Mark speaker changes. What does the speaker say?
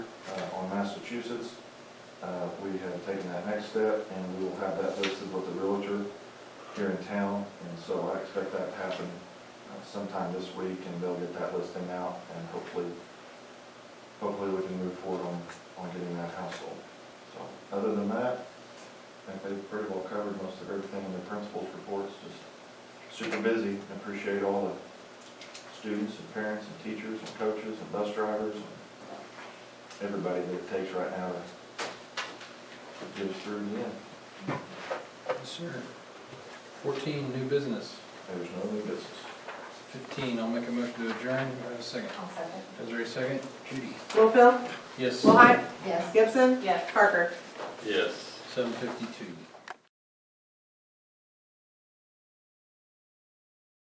Speaker 1: uh, Massachusetts. Uh, we have taken that next step, and we will have that listed with the realtor here in town, and so I expect that to happen uh, sometime this week, and they'll get that listing out, and hopefully, hopefully we can move forward on, on getting that house sold. So, other than that, I think they've pretty well covered most of everything in the principal's reports, just super busy, and appreciate all the students and parents and teachers and coaches and bus drivers and everybody that it takes right now to get us through the end.
Speaker 2: Yes, sir. Fourteen, new business.
Speaker 1: There's no new business.
Speaker 2: Fifteen, I'll make a motion to adjourn. Do I have a second?
Speaker 3: I'll second.
Speaker 2: Desiree, second. Judy?
Speaker 4: Littlefield,
Speaker 2: Yes.
Speaker 4: Willhite,
Speaker 3: Yes.
Speaker 4: Gibson,
Speaker 3: Yes.
Speaker 4: Parker.
Speaker 5: Yes.
Speaker 2: Seven fifty-two.